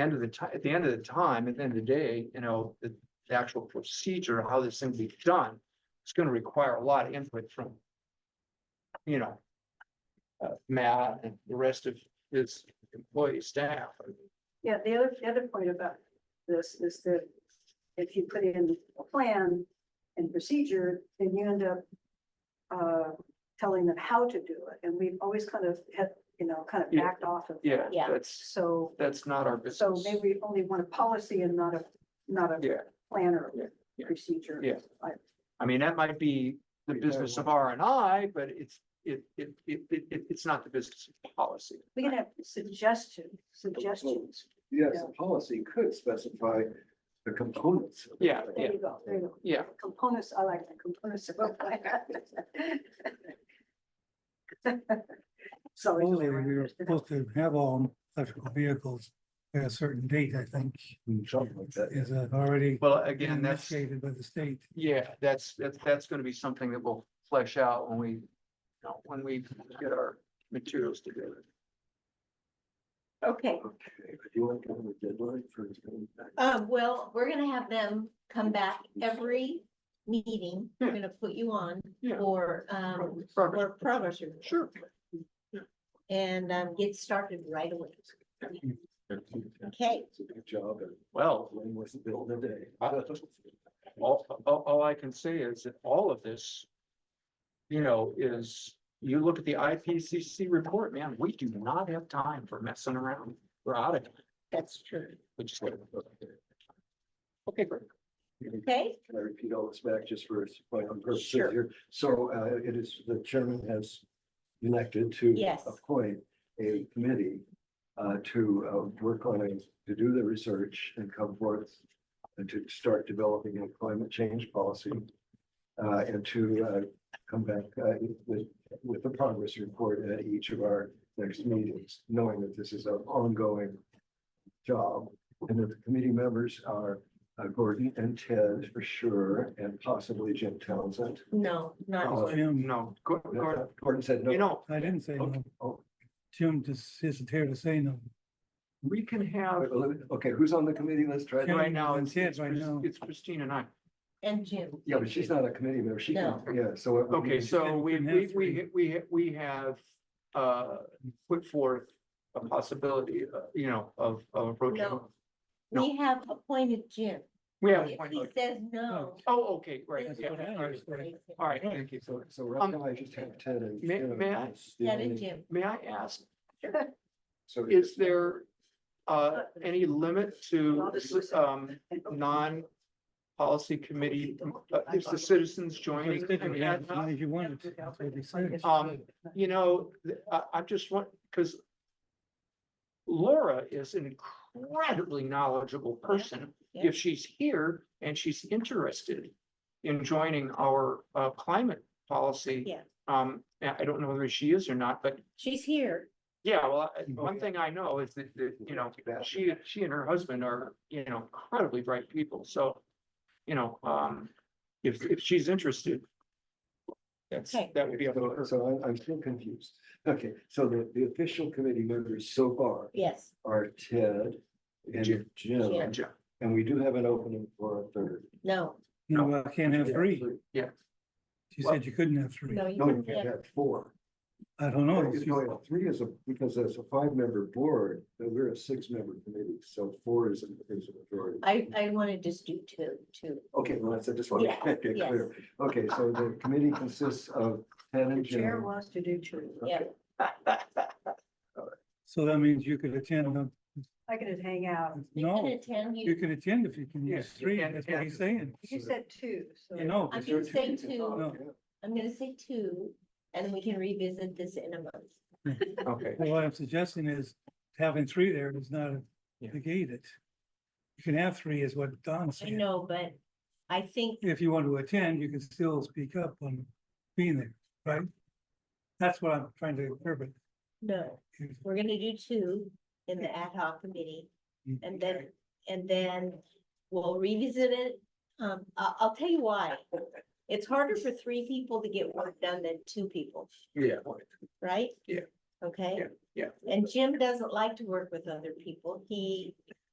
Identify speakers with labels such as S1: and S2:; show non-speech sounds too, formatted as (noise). S1: end of the ti- at the end of the time, at the end of the day, you know, the the actual procedure, how this thing be done. It's gonna require a lot of input from. You know. Uh, Matt and the rest of his employee staff.
S2: Yeah, the other, the other point about this is that if you put in a plan and procedure, then you end up uh, telling them how to do it, and we've always kind of had, you know, kind of
S1: Yeah.
S2: backed off of.
S1: Yeah,
S2: that.
S3: Yeah.
S1: that's,
S2: So,
S1: that's not our
S2: so
S1: business.
S2: maybe we only want a policy and not a, not a
S1: Yeah,
S2: plan or
S1: Yeah, yeah.
S2: procedure.
S1: Yeah.
S2: I-
S1: I mean, that might be the business of R and I, but it's, it, it, it, it, it- it's not the business of policy.
S2: We can have suggestions, suggestions.
S1: Oh,
S4: Yes,
S2: Yeah.
S4: the policy could specify the components. of the
S1: Yeah,
S4: plan.
S2: There you go, there you go.
S1: Yeah,
S2: Components, I like the components of (laughs) a plan. So. it's
S5: Only
S2: around.
S5: we were supposed to have all electrical vehicles at a certain date, I think.
S4: Something like that.
S5: Is uh, already
S1: well, again, that's.
S5: initiated by the state.
S1: Yeah, that's, that's, that's gonna be something that we'll flesh out when we, you know, when we get our materials together.
S4: Okay,
S3: Okay,
S4: but you want to give them a deadline for it coming back?
S3: um, well, we're gonna have them come back every meeting. We're gonna put you on
S1: Yeah.
S3: for, um,
S1: Progress.
S3: for progress report
S1: Sure.
S3: and, um, get started right away. Okay.
S4: It's a big job and
S1: Well,
S4: one was built in a day.
S1: all, all, all I can say is that all of this, you know, is, you look at the IPCC report, man, we do not have time for messing around. We're out of, here.
S3: That's true.
S1: we just gotta. Okay, great.
S3: Okay,
S4: (laughs) Can I repeat all this back just for my own purposes
S3: Sure.
S4: here? So uh, it is, the chairman has elected to
S3: Yes.
S4: appoint a committee uh, to uh, work on it, to do the research and come forth and to start developing a climate change policy uh, and to uh, come back uh, with, with the progress report at each of our next meetings, knowing that this is an ongoing job and that the committee members are uh, Gordon and Ted for sure, and possibly Jim Townsend.
S3: no,
S4: Oh,
S3: not,
S5: Jim,
S1: No, go, go,
S4: Gordon said,
S1: you
S4: no,
S1: know,
S5: I didn't say no.
S4: oh.
S5: Jim just isn't here to say no.
S1: we can have,
S4: Wait, let me- okay, who's on the committee? Let's try.
S5: Yeah.
S4: that.
S1: right now, it's, it's
S5: Kids right now.
S1: it's Christine and I.
S3: and Jim.
S4: Yeah, but she's not a committee member. She can, yeah, so. it would be-
S1: Okay, so
S5: didn't
S1: we,
S5: have
S1: we, we,
S5: three.
S1: we, we have, uh, put forth a possibility, uh, you know, of, of approaching.
S3: No. We have appointed Jim.
S1: We have, a
S3: If
S1: point.
S3: he says no.
S1: oh, okay, right,
S3: then
S5: That's
S1: yeah,
S5: what I
S1: all right,
S5: asked.
S3: raise it.
S1: all right, thank you.
S4: So, so right now I just have Ted and.
S1: May-
S4: Jim
S1: may I?
S4: as the
S3: Yeah, and
S4: only-
S3: Jim.
S1: May I ask,
S4: So
S1: is there, uh, any limit to, um, non-policy committee, uh, is the citizens joining?
S5: Because
S1: I
S5: you
S1: mean, I-
S5: had as many
S1: I-
S5: as you wanted. to. That's what they said.
S1: Um, You know, th- I, I just want, because Laura is an incredibly knowledgeable person.
S3: Yeah.
S1: if she's here and she's interested in joining our uh climate policy.
S3: Yeah.
S1: Um, I I don't know whether she is or not, but
S3: She's here.
S1: yeah, well, I-
S5: Mhm.
S1: one thing I know is that, that, you know, she, she and her husband are, you know, incredibly bright people, so. You know, um, if, if she's interested. That's,
S3: Okay.
S1: that would be up to
S4: So
S1: her.
S4: so I'm, I'm still confused. Okay, so the, the official committee members so far
S3: Yes,
S4: are Ted and
S1: Jim.
S4: Jim,
S3: Jim.
S1: Yeah,
S4: and we do have an opening for a third.
S3: no,
S5: No, I can't have three.
S1: Yeah.
S5: She said you couldn't have three.
S3: no, you
S4: Hmm. No, you
S3: can't.
S4: can't have four.
S5: I don't know.
S4: It's only Three is a, because there's a five-member board, but we're a six-member committee, so four is, a- is a majority.
S3: I, I want to just do two, two.
S4: Okay, well, that's, I just want
S3: Yeah,
S4: to get
S3: yes.
S4: clear. (laughs) Okay, so the committee consists of Ted
S2: The
S4: and
S2: chair
S4: Jim.
S2: wants to do two.
S3: Yeah.
S5: So that means you could attend. uh,
S2: I could hang out.
S3: You can
S5: No,
S3: attend,
S5: you
S3: you,
S5: can attend if you can use
S1: Yeah,
S5: three.
S1: and-
S5: That's what
S1: and-
S5: he's saying.
S2: You said two, so.
S5: You know.
S3: I'm
S5: but
S3: gonna say
S5: No.
S3: two, I'm gonna say two, and then we can revisit this in a month.
S1: Okay,
S5: Well, What I'm suggesting is having three there does not
S1: Yeah.
S5: negate it. You can have three is what Don
S3: I
S5: said.
S3: know, but I think,
S5: If you want to attend, you can still speak up on being there, right? That's what I'm trying to interpret.
S3: no, we're gonna do two in the ad hoc committee, and then, and then we'll revisit it. Um, I, I'll tell you why. It's harder for three people to get work done than two people,
S1: yeah,
S3: right?
S1: Yeah.
S3: Okay?
S1: yeah.
S3: And Jim doesn't like to work with other people. He